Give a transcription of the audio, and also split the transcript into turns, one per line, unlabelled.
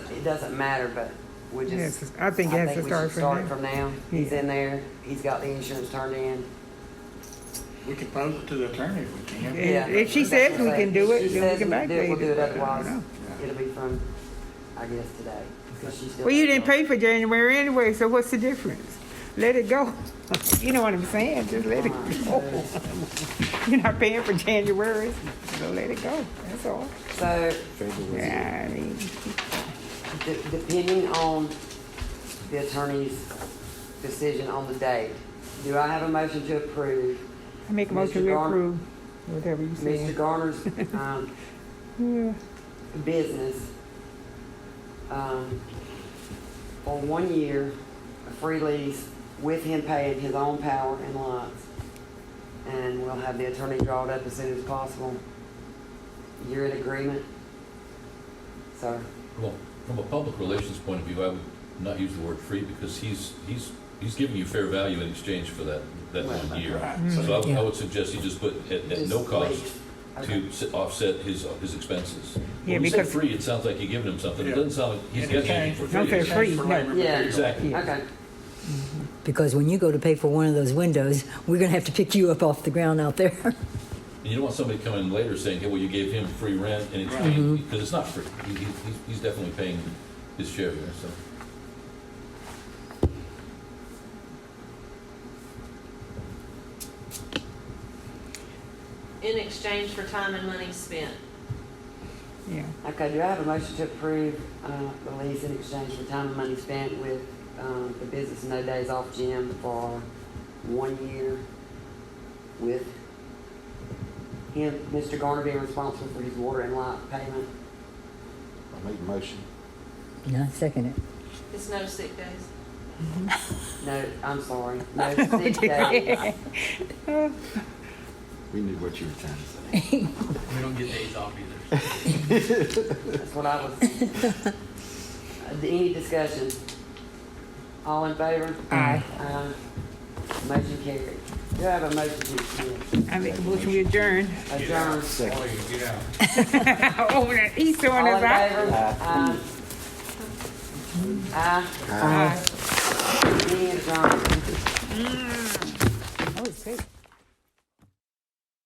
it doesn't matter, but we just.
Yes, I think it has to
we should
start from
Start
now.
from now. He's
Yeah.
in there, he's got the insurance turned in.
We can pose it to the attorney if we can.
Yeah.
And if she says we can do
She
it, then we
says
can
we do it,
backdate
We'll do it
it. I
otherwise.
don't
It'll be from, I guess, today. 'cause she's still-
Well, you didn't pay for January anyway, so what's the difference? Let it go. You know what I'm saying? Just let it go. You're not paying for January, so let it go. That's all.
So,
Yeah, I mean,
de- depending on the attorney's decision on the date, do I have a motion to approve
I make a motion
Mr.
to
Gar-
approve whatever you
Mr.
say.
Garner's, um,
Yeah.
business um, for one year, a free lease, with him paying his own power and lights. And we'll have the attorney draw it up as soon as possible. You're in agreement? Sir,
Well, from a public relations point of view, I would not use the word free because he's, he's, he's giving you fair value in exchange for that, that
Well,
one year.
Right,
So I
so
would, I would suggest you just put at, at no
Just
cost
lease. okay.
to s- offset his, his expenses.
Yeah,
When you say
because-
free, it sounds like you're giving him something. It
Yeah.
doesn't sound like he's
in
getting anything
exchange
for
for-
Not
free.
fair
in
free,
exchange for
no.
labor, but
Yeah.
there you go.
Exactly.
Okay,
Because when you go to pay for one of those windows, we're going to have to pick you up off the ground out there.
And you don't want somebody coming in later saying, hey, well, you gave him free rent and it's
Mm-hmm.
paid, because it's not free. He, he, he's- he's definitely paying his share here, so.
in exchange for time and money spent.
Yeah.
okay, do I have a motion to approve uh, the lease in exchange for time and money spent with um, the business No Days Off Gym for one year with him, Mr. Garner being responsible for his water and light payment?
I make a motion.
No, second it.
It's no sick days.
No, I'm sorry, no sick days.
We knew what you were trying to say.
We don't get days off either.
That's what I was. Uh, Any discussion? All in favor?
Aye.
Aye. Motion carried. Do I have a motion to
I make a motion to adjourn.
adjourn?
Second.
Boy, get out.
Oh, that he's throwing
All in
us out.
favor? Aye. Aye.
Aye.
uh,